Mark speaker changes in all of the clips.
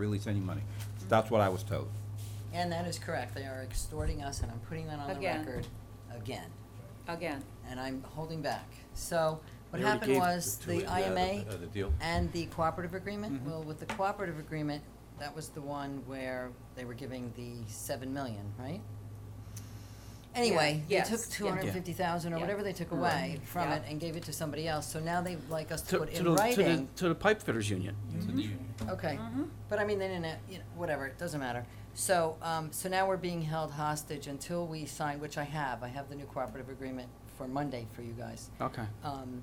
Speaker 1: release any money. That's what I was told.
Speaker 2: And that is correct, they are extorting us, and I'm putting that on the
Speaker 3: Again.
Speaker 2: record again,
Speaker 3: Again,
Speaker 2: and I'm holding back. So, what
Speaker 4: They already
Speaker 2: happened
Speaker 4: gave
Speaker 2: was,
Speaker 4: to
Speaker 2: the
Speaker 4: it, uh,
Speaker 2: IMA
Speaker 4: uh, The deal.
Speaker 2: and the cooperative agreement,
Speaker 4: Mhm.
Speaker 2: well, with the cooperative agreement, that was the one where they were giving the seven million, right? Anyway, they
Speaker 3: yes,
Speaker 2: took
Speaker 3: yeah.
Speaker 2: two hundred and fifty thousand or
Speaker 3: Yeah.
Speaker 2: whatever they took
Speaker 3: Right.
Speaker 2: away from it
Speaker 3: Yeah.
Speaker 2: and gave it to somebody else, so now they'd like us to
Speaker 4: To,
Speaker 2: put
Speaker 4: to
Speaker 2: in
Speaker 4: the, to the,
Speaker 2: writing.
Speaker 4: to the pipe fitters union.
Speaker 2: Okay,
Speaker 3: Mm-hmm.
Speaker 2: but I mean, they didn't, you know, whatever, it doesn't matter. So, um, so now we're being held hostage until we sign, which I have, I have the new cooperative agreement for Monday for you guys.
Speaker 4: Okay.
Speaker 2: Um,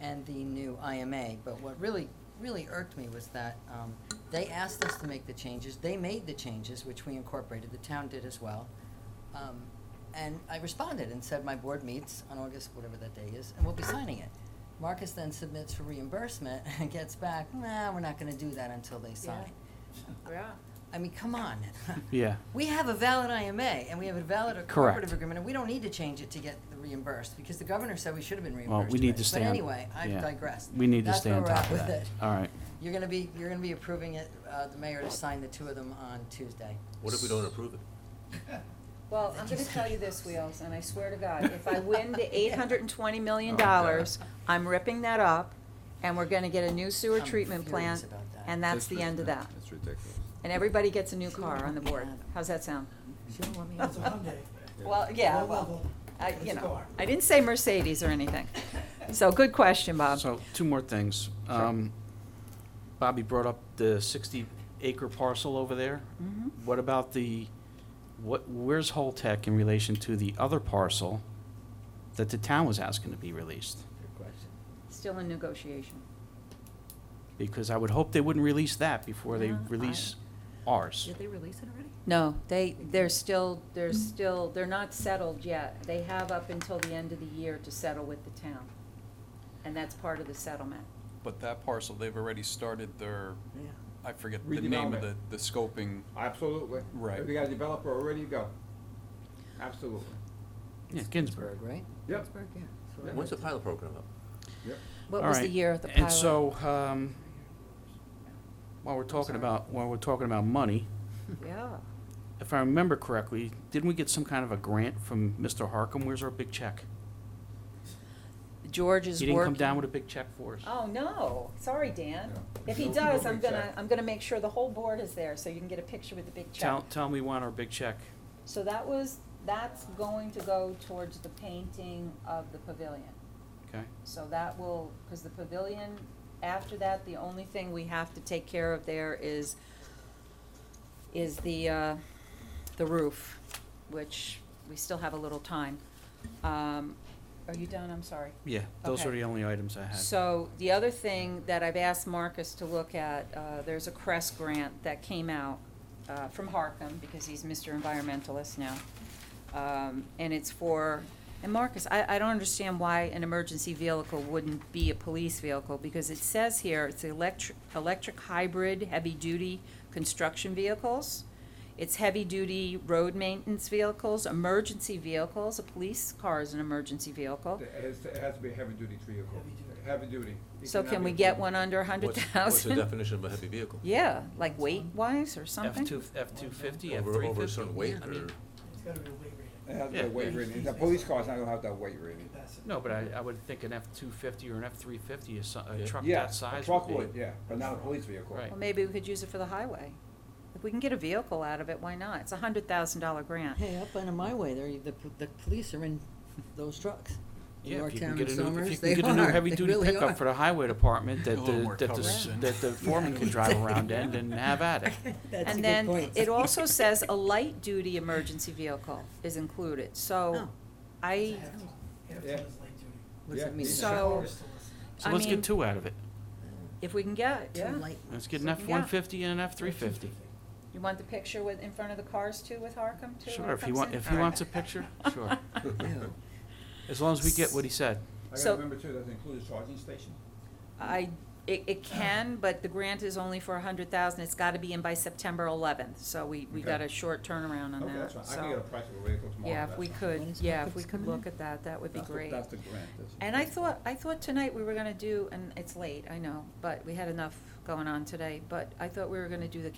Speaker 2: and the new IMA, but what really, really irked me was that, um, they asked us to make the changes, they made the changes, which we incorporated, the town did as well. Um, and I responded and said, my board meets on August, whatever that day is, and we'll be signing it. Marcus then submits for reimbursement and gets back, nah, we're not gonna do that until they sign.
Speaker 3: yeah.
Speaker 2: I mean, come on.
Speaker 4: Yeah.
Speaker 2: We have a valid IMA and we have a valid
Speaker 4: Correct.
Speaker 2: cooperative agreement, and we don't need to change it to get the reimbursed, because the governor said we should have been reimbursed.
Speaker 4: Well, we need
Speaker 2: already.
Speaker 4: to stay on.
Speaker 2: But anyway, I've
Speaker 4: yeah.
Speaker 2: digressed.
Speaker 4: We need to
Speaker 2: That's
Speaker 4: stay
Speaker 2: where
Speaker 4: on
Speaker 2: we're at
Speaker 4: top of
Speaker 2: with
Speaker 4: that.
Speaker 2: it.
Speaker 4: All right.
Speaker 2: You're gonna be, you're gonna be approving it, uh, the mayor to sign the two of them on Tuesday.
Speaker 5: What if we don't approve it?
Speaker 3: Well, I'm gonna tell you this, Wheels, and I swear to God, if I win the eight hundred and twenty million dollars, I'm ripping that up, and we're gonna get a new sewer
Speaker 2: I'm
Speaker 3: treatment
Speaker 2: furious
Speaker 3: plant,
Speaker 2: about that.
Speaker 3: and that's the end of that.
Speaker 1: It's ridiculous.
Speaker 3: And everybody gets a new
Speaker 2: She won't
Speaker 3: car on the
Speaker 2: let me
Speaker 3: board.
Speaker 2: have it.
Speaker 3: How's that sound?
Speaker 2: She don't want me
Speaker 6: That's a
Speaker 2: on.
Speaker 6: Hyundai.
Speaker 3: Well, yeah,
Speaker 6: Low
Speaker 3: well,
Speaker 6: level.
Speaker 3: I,
Speaker 6: It's
Speaker 3: you
Speaker 6: a
Speaker 3: know,
Speaker 6: car.
Speaker 3: I didn't say Mercedes or anything. So, good question, Bob.
Speaker 4: So, two more things. Um, Bobby brought up the sixty acre parcel over there.
Speaker 3: Mhm.
Speaker 2: Mm-hmm.
Speaker 4: What about the, what, where's Holtec in relation to the other parcel that the town was asking to be released?
Speaker 3: Still in negotiation.
Speaker 4: Because I would hope they wouldn't release that before they
Speaker 3: Yeah, I-
Speaker 4: release ours.
Speaker 2: they release it already?
Speaker 3: No, they, they're still, they're still, they're not settled yet. They have up until the end of the year to settle with the town. And that's part of the settlement.
Speaker 7: But that parcel, they've already started their,
Speaker 2: Yeah.
Speaker 7: I forget the name of the,
Speaker 1: Redevelopment.
Speaker 7: the scoping.
Speaker 1: Absolutely.
Speaker 7: Right.
Speaker 1: We got a developer already, go. Absolutely.
Speaker 4: Yeah, Ginsburg.
Speaker 2: Right?
Speaker 1: Yep.
Speaker 2: Pittsburgh, yeah. That's what I
Speaker 5: When's the
Speaker 2: heard.
Speaker 5: pilot program up?
Speaker 1: Yep.
Speaker 3: What
Speaker 4: All
Speaker 3: was the
Speaker 4: right.
Speaker 3: year of the
Speaker 4: And
Speaker 3: pilot?
Speaker 4: so, um, while we're talking
Speaker 3: sorry.
Speaker 4: about, while we're talking about money,
Speaker 3: Yeah.
Speaker 4: if I remember correctly, didn't we get some kind of a grant from Mr. Harkam? Where's our big check?
Speaker 3: George is
Speaker 4: He
Speaker 3: working.
Speaker 4: didn't come down with a big check for us.
Speaker 3: Oh, no. Sorry, Dan.
Speaker 1: Yeah.
Speaker 3: If he
Speaker 1: No-
Speaker 3: does,
Speaker 1: no
Speaker 3: I'm
Speaker 1: big
Speaker 3: gonna,
Speaker 1: check.
Speaker 3: I'm gonna make sure the whole board is there so you can get a picture with the big check.
Speaker 4: Tell, tell me we want our big check.
Speaker 3: So that was, that's going to go towards the painting of the pavilion.
Speaker 4: Okay,
Speaker 3: So that will, because the pavilion, after that, the only thing we have to take care of there is, is the, uh, the roof, which we still have a little time. Um, are you done? I'm sorry.
Speaker 4: yeah, those are
Speaker 3: Okay.
Speaker 4: the only items I had.
Speaker 3: So the other thing that I've asked Marcus to look at, uh, there's a CREST grant that came out uh, from Harcum, because he's Mr. Environmentalist now. Um, And it's for, and Marcus, I, I don't understand why an emergency vehicle wouldn't be a police vehicle, because it says here, it's electric, electric hybrid, heavy-duty construction vehicles. It's heavy-duty road maintenance vehicles, emergency vehicles, a police car is an emergency vehicle.
Speaker 8: It has, it has to be a heavy-duty vehicle, heavy-duty. It
Speaker 3: So
Speaker 8: cannot
Speaker 3: can
Speaker 8: be
Speaker 3: we
Speaker 8: a
Speaker 3: get
Speaker 8: small-
Speaker 3: one under a hundred
Speaker 5: What's- What's the
Speaker 3: thousand?
Speaker 5: definition of a heavy vehicle?
Speaker 3: Yeah, like weight wise or
Speaker 4: F
Speaker 3: something?
Speaker 4: two, F two fifty, F three
Speaker 5: Over,
Speaker 4: fifty?
Speaker 5: over a certain weight
Speaker 4: I mean,
Speaker 5: or?
Speaker 6: It's gotta be a weight rating
Speaker 8: It has to be
Speaker 4: Yeah.
Speaker 8: a weight rating. The police car's not gonna have that weight rating.
Speaker 6: capacity.
Speaker 4: No, but I, I would think an F two fifty or an F three fifty is so- a
Speaker 5: Yeah.
Speaker 4: truck
Speaker 8: Yeah,
Speaker 4: that size
Speaker 8: a truck
Speaker 4: would
Speaker 8: would,
Speaker 4: be.
Speaker 8: yeah, but not a police vehicle.
Speaker 4: Right.
Speaker 3: Well, maybe we could use it for the highway. If we can get a vehicle out of it, why not? It's a hundred thousand dollar grant.
Speaker 2: Hey, up on my way there, the, p- the police are in those trucks. In
Speaker 4: Yeah, if you
Speaker 2: Yorktown
Speaker 4: can get
Speaker 2: and
Speaker 4: a new,
Speaker 2: Somers,
Speaker 4: if you
Speaker 2: they
Speaker 4: can get a new
Speaker 2: are. They
Speaker 4: heavy duty
Speaker 2: really are.
Speaker 4: pickup for the highway department
Speaker 7: A
Speaker 4: that
Speaker 7: little
Speaker 4: the,
Speaker 7: more
Speaker 4: that the, s-
Speaker 7: coverage then.
Speaker 4: that the foreman can drive around in and have at it.
Speaker 2: That's a
Speaker 3: And
Speaker 2: good
Speaker 3: then
Speaker 2: point.
Speaker 3: it also says a light duty emergency vehicle is included,
Speaker 2: Oh.
Speaker 3: so
Speaker 6: It's a
Speaker 3: I,
Speaker 6: half ton- half ton
Speaker 8: Yeah.
Speaker 6: is light duty.
Speaker 2: What does
Speaker 8: Yeah,
Speaker 2: that mean?
Speaker 8: these
Speaker 3: are- So-
Speaker 6: Cars still listen.
Speaker 4: So
Speaker 3: I
Speaker 4: let's
Speaker 3: mean-
Speaker 4: get two out of it.
Speaker 3: if we can get it,
Speaker 2: Two
Speaker 3: yeah.
Speaker 2: light ones.
Speaker 4: Let's get an
Speaker 3: Yeah.
Speaker 4: F one fifty and an F three fifty.
Speaker 3: You want the picture with, in front of the cars too with Harcum too?
Speaker 4: Sure,
Speaker 3: when it
Speaker 4: if he
Speaker 3: comes
Speaker 4: want,
Speaker 3: in?
Speaker 4: if
Speaker 3: All
Speaker 4: he
Speaker 3: right.
Speaker 4: wants a picture, sure.
Speaker 2: Ew.
Speaker 4: As long as we get what he said.
Speaker 8: I
Speaker 3: So-
Speaker 8: gotta remember too, does it include a charging station?
Speaker 3: I, it, it can, but the grant is only for a hundred thousand, it's gotta be in by September eleventh, so we, we
Speaker 8: Okay.
Speaker 3: got a short turnaround on
Speaker 8: Okay,
Speaker 3: that,
Speaker 8: that's
Speaker 3: so.
Speaker 8: fine. I can get a price of a vehicle tomorrow.
Speaker 3: Yeah, if
Speaker 8: that's
Speaker 3: we
Speaker 8: fine.
Speaker 2: When
Speaker 3: could,
Speaker 2: is
Speaker 3: yeah, if
Speaker 2: Hopkins
Speaker 3: we could
Speaker 2: coming
Speaker 3: look
Speaker 2: in?
Speaker 3: at that, that would be
Speaker 8: That's the-
Speaker 3: great.
Speaker 8: That's the grant. that's-
Speaker 3: And I thought, I thought tonight we were gonna do, and it's late, I know, but we had enough going on today, but I thought we were gonna do the